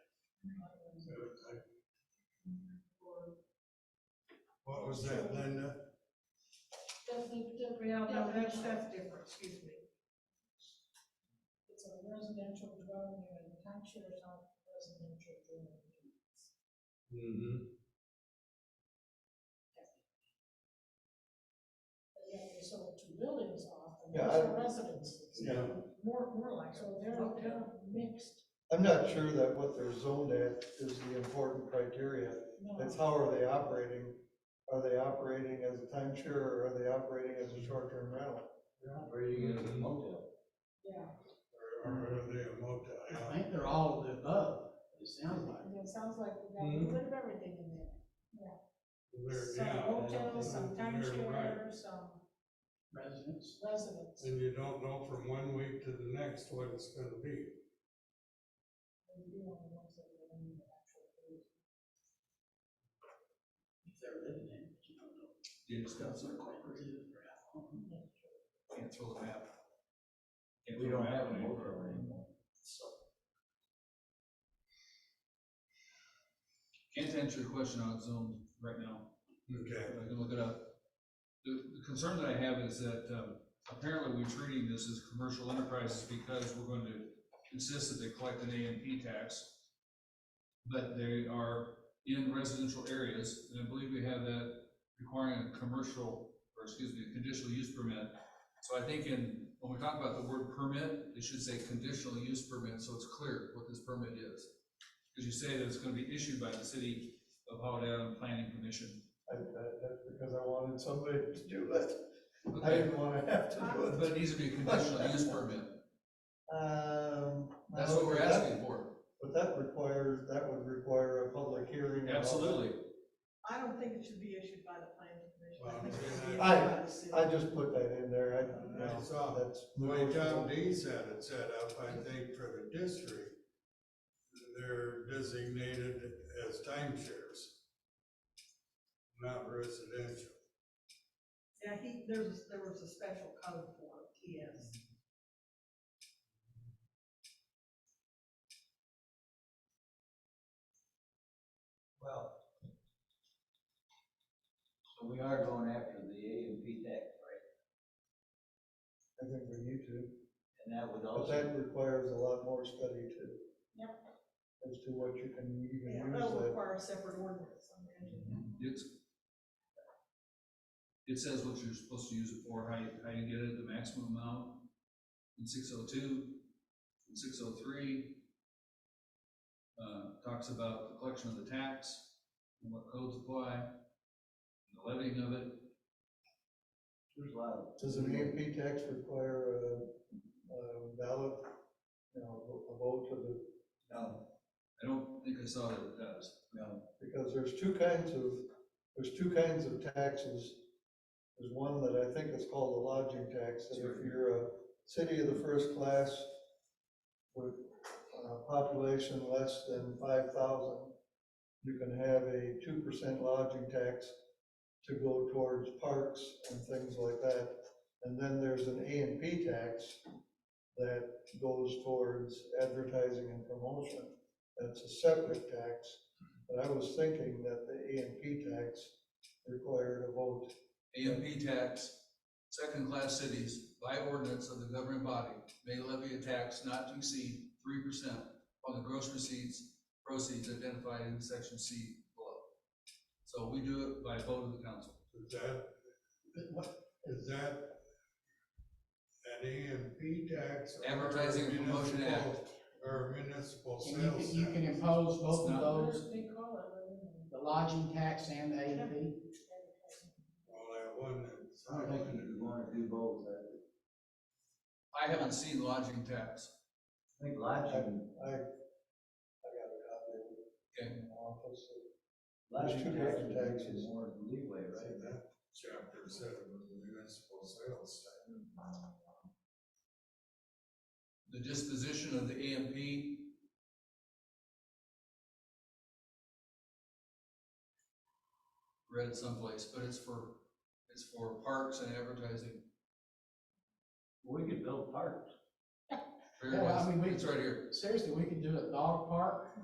What was that, Linda? That's a Yeah, different. no, that's, that's different, excuse me. It's a residential dwelling unit, the timeshare is not a residential dwelling unit. Mm-hmm. But yet they sold two buildings off, and Yeah, those are residences. Yeah. More, more like. So they're, they're mixed, I'm not sure that what they're zoned at is the important criteria. no. It's how are they operating? Are they operating as a timeshare or are they operating as a short-term rental? They're operating as a motel. Yeah, Or are they a motel? I think they're all of the above, it sounds like. and it sounds like we got a Mm-hmm. little bit of everything in there. They're- Some yeah. hotels, some They're right. timeshare, some Residents, residents. And you don't know from one week to the next what it's gonna be. And you don't know what's in there, and you actually- if they're living in, it, you don't know. You just got some cooperative or at home. Can't throw them out. Can't We throw don't them have out a anymore. motel anymore. So, Can't answer your question on Zoom right now, Okay. but I can look it up. The, the concern that I have is that, um, apparently we're treating this as commercial enterprises because we're going to insist that they collect an A and P tax. But they are in residential areas, and I believe we have that requiring a commercial, or excuse me, a conditional use permit. So I think in, when we talk about the word permit, it should say conditional use permit, so it's clear what this permit is. Because you say that it's gonna be issued by the city of Holiday Island Planning Commission. I, I- that's because I wanted somebody to do it. I Okay, didn't wanna have to do but it. it needs to be a conditional use permit, Um. that's what we're that- asking for, But that requires, that would require a public hearing. and all that. absolutely. I don't think it should be issued by the planning commission. I think it should be issued Well, by the city. I just put that in there, I, I no, saw that's. The way Tom D said it set up, I think for the district, they're designated as timeshares, not residential. Yeah, he, there's, there was a special code for it, yes. Well. So we are going after the A and P tax, right? I think we need to, And that would but also, that requires a lot more study too. Yep. As to what you can even Yeah, use that'll that. require a separate ordinance on the Mm-hmm. engine. It's, it says what you're supposed to use it for, how you, how you get it, the maximum amount in six oh two, in six oh three. Uh, talks about the collection of the tax, and what codes apply, and the levying of it. there's a lot of. Does an EMP tax require a, a ballot, you know, a vote to the, No, I don't think I saw that it does. no, because there's two kinds of, there's two kinds of taxes. There's one that I think is called the lodging tax, and if you're a city of the first class with a population less than five thousand, you can have a two percent lodging tax to go towards parks and things like that. And then there's an A and P tax that goes towards advertising and promotion. That's a separate tax, but I was thinking that the A and P tax required a vote. AMP tax, second-class cities, by ordinance of the governing body, may levy a tax not to exceed three percent on the gross receipts, proceeds identified in section C below. So we do it by vote of the council. Is that, is that an EMP tax? or Advertising and Promotion municipal- Or municipal And you sales can, you can tax? impose both of It's not- those, They call it, I don't know. the lodging tax and the A and P. Well, that one, that's- I think you wanna do both, I I haven't seen lodging tax. think lodging, I, I got a copy of it Okay, in the office. There's lodging tax two different would give taxes. you more leeway, see, right? that chapter said it was municipal sales tax. the disposition of the AMP, read it someplace, but it's for, it's for parks and advertising. We could build parks. Here it Yeah, I is. mean, we- It's right here. Seriously, we could do a dog park,